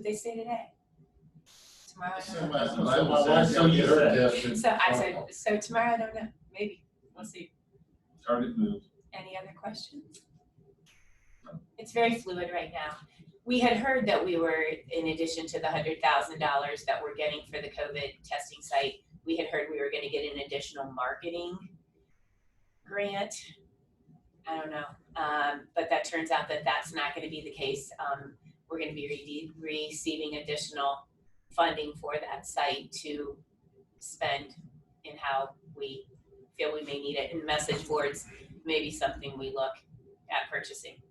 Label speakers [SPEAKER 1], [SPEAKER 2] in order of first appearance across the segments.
[SPEAKER 1] what they say today. Tomorrow, I don't
[SPEAKER 2] Somebody-
[SPEAKER 3] what
[SPEAKER 2] my
[SPEAKER 3] someone
[SPEAKER 2] wife
[SPEAKER 3] said,
[SPEAKER 2] sent me
[SPEAKER 3] yeah,
[SPEAKER 2] her
[SPEAKER 3] yeah.
[SPEAKER 2] gift
[SPEAKER 1] know.
[SPEAKER 2] and-
[SPEAKER 1] So I said, so tomorrow, I don't know, maybe, we'll see.
[SPEAKER 3] Target moved.
[SPEAKER 1] Any other questions? It's very fluid right now. We had heard that we were, in addition to the hundred thousand dollars that we're getting for the COVID testing site, we had heard we were gonna get an additional marketing grant. I don't know, um, but that turns out that that's not gonna be the case. Um, we're gonna be re- receiving additional funding for that site to spend in how we feel we may need it. And message boards may be something we look at purchasing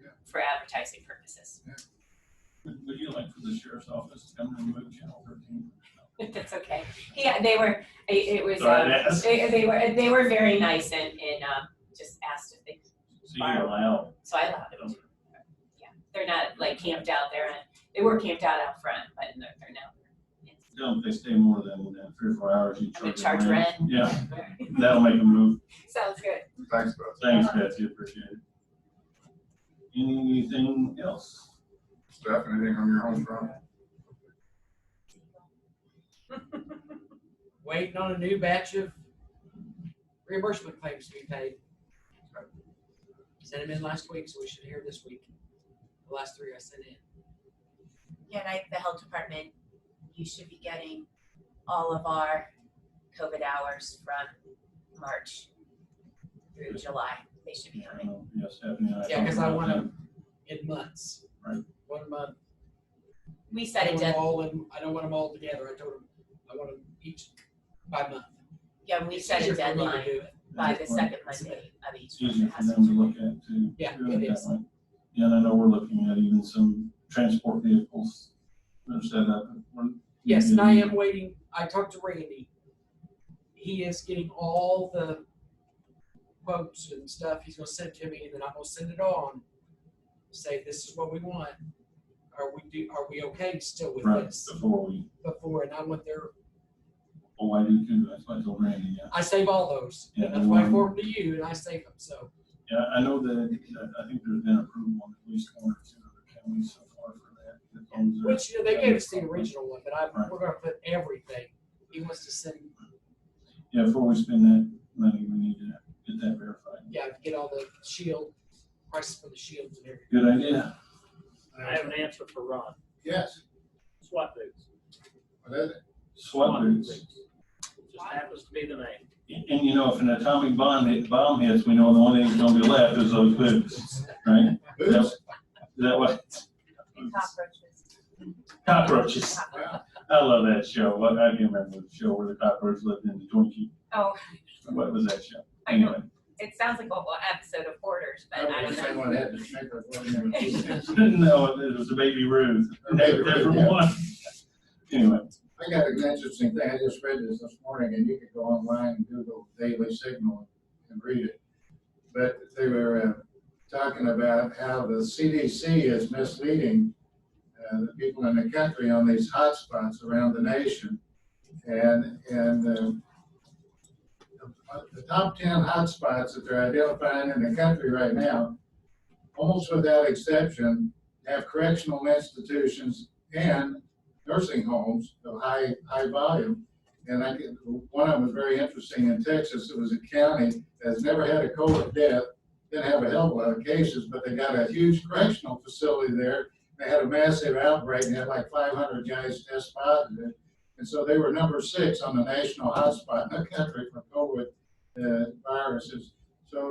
[SPEAKER 2] Yeah.
[SPEAKER 1] for advertising purposes.
[SPEAKER 3] Would would you like for the sheriff's office to come and remove channel thirteen?
[SPEAKER 1] That's okay. Yeah, they were, it, it was,
[SPEAKER 3] Sorry
[SPEAKER 1] um,
[SPEAKER 3] to ask. So
[SPEAKER 1] they, they were, they were very nice and, and, um, just asked if they,
[SPEAKER 3] you allow.
[SPEAKER 1] so I allowed them to. They're not like camped out there and they were camped out out front, but they're, they're now.
[SPEAKER 3] Tell them if they stay more than uh, three or four hours, you
[SPEAKER 1] I'm gonna
[SPEAKER 3] charge. them
[SPEAKER 1] charge rent.
[SPEAKER 3] Yeah, that'll make them move.
[SPEAKER 1] Sounds good.
[SPEAKER 2] Thanks, bro.
[SPEAKER 3] Thanks, Betsy, appreciate it. Anything else?
[SPEAKER 2] Steph, anything on your home front?
[SPEAKER 4] waiting on a new batch of reimbursement claims to be paid. Sent them in last week, so we should hear this week. The last three I sent in.
[SPEAKER 1] Yeah, and I, the health department, you should be getting all of our COVID hours from March through July. They should be coming.
[SPEAKER 3] Yeah, Stephanie. and
[SPEAKER 4] Yeah, 'cause I
[SPEAKER 3] talked about
[SPEAKER 4] wanna-
[SPEAKER 3] that.
[SPEAKER 4] In months.
[SPEAKER 3] Right.
[SPEAKER 4] One month.
[SPEAKER 1] We
[SPEAKER 4] I
[SPEAKER 1] set a
[SPEAKER 4] want 'em
[SPEAKER 1] deadline,
[SPEAKER 4] all in, I don't want them all together. I told them, I want them each by month.
[SPEAKER 1] yeah, we
[SPEAKER 4] It's
[SPEAKER 1] set a
[SPEAKER 4] easier for me to
[SPEAKER 1] deadline
[SPEAKER 4] do it.
[SPEAKER 1] by the
[SPEAKER 3] That's fine.
[SPEAKER 1] second Monday of each
[SPEAKER 3] It's
[SPEAKER 1] month.
[SPEAKER 3] easier
[SPEAKER 1] It
[SPEAKER 3] for
[SPEAKER 1] has
[SPEAKER 3] them to
[SPEAKER 1] be-
[SPEAKER 3] look at too.
[SPEAKER 4] Yeah,
[SPEAKER 3] do
[SPEAKER 4] it
[SPEAKER 3] that
[SPEAKER 4] is.
[SPEAKER 3] way. Yeah, and I know we're looking at even some transport vehicles that are set up. We're-
[SPEAKER 4] Yes, and
[SPEAKER 3] Mm-hmm.
[SPEAKER 4] I am waiting. I talked to Randy. He is getting all the quotes and stuff. He's gonna send to me, and then I'm gonna send it on. Say, this is what we want. Are we do, are we okay still with
[SPEAKER 3] Right,
[SPEAKER 4] this
[SPEAKER 3] before we,
[SPEAKER 4] before? And I want their,
[SPEAKER 3] oh, I do too, that's why I told Randy, yeah.
[SPEAKER 4] I save all those.
[SPEAKER 3] Yeah,
[SPEAKER 4] That's why I
[SPEAKER 3] um,
[SPEAKER 4] forward them to you and I save them, so.
[SPEAKER 3] Yeah, I know that, uh, I think there's been approval on at least one or two other counties so far for that. that those are-
[SPEAKER 4] Which, you know, they gave us the original one, but I,
[SPEAKER 3] Right.
[SPEAKER 4] we're gonna put everything. He wants to send,
[SPEAKER 3] Yeah, before we spend that money, we need to get that verified.
[SPEAKER 4] yeah, get all the shield, prices for the shields and everything.
[SPEAKER 3] Good idea.
[SPEAKER 5] I have an answer for Ron.
[SPEAKER 2] Yes,
[SPEAKER 5] SWAT boots.
[SPEAKER 2] what is it?
[SPEAKER 3] SWAT boots.
[SPEAKER 5] Just happens to be the name.
[SPEAKER 3] And, and you know, if an atomic bomb hit, bomb hits, we know the only thing that's gonna be left is those boots, right?
[SPEAKER 2] Boots?
[SPEAKER 3] Is that what?
[SPEAKER 1] And cockroaches.
[SPEAKER 3] Cockroaches.
[SPEAKER 2] Yeah.
[SPEAKER 3] I love that show. What, I can't remember the show where the cockroach lived in the Twinkie.
[SPEAKER 1] Oh,
[SPEAKER 3] What was that show?
[SPEAKER 1] I know.
[SPEAKER 3] Anyway,
[SPEAKER 1] it sounds like a whole episode of Hoarders, but I
[SPEAKER 2] I
[SPEAKER 1] don't
[SPEAKER 2] would say
[SPEAKER 1] know.
[SPEAKER 2] one had to shake her foot in.
[SPEAKER 3] no, it was the Baby Ruth. That- that's from one. Anyway,
[SPEAKER 2] I got an interesting thing, I just read this this morning, and you could go online and Google Daily Signal and read it. But they were uh, talking about how the CDC is misleading uh, the people in the country on these hotspots around the nation. And, and um, the- the top ten hotspots that they're identifying in the country right now, almost without exception, have correctional institutions and nursing homes of high, high volume. And I get, one of them was very interesting in Texas. It was a county that's never had a COVID death, didn't have a hell of a lot of cases, but they got a huge correctional facility there. They had a massive outbreak and had like five hundred guys test positive. And so they were number six on the national hotspot in the country for COVID, uh, viruses. So,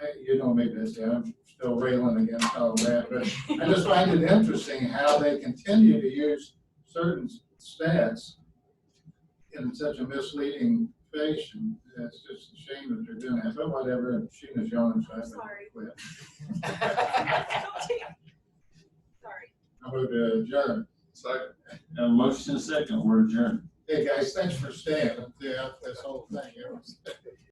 [SPEAKER 2] hey, you know me, Betsy, I'm still railing against all that, but I just find it interesting how they continue to use certain stats in such a misleading fashion. It's just a shame that they're doing that, but whatever, Sheena's yawning, so I have to
[SPEAKER 6] Sorry.
[SPEAKER 2] quit.
[SPEAKER 6] Sorry.
[SPEAKER 2] I move to adjourn. Second.
[SPEAKER 3] a motion and a second, we're adjourned.
[SPEAKER 2] Hey, guys, thanks for staying, yeah, this whole thing, it was-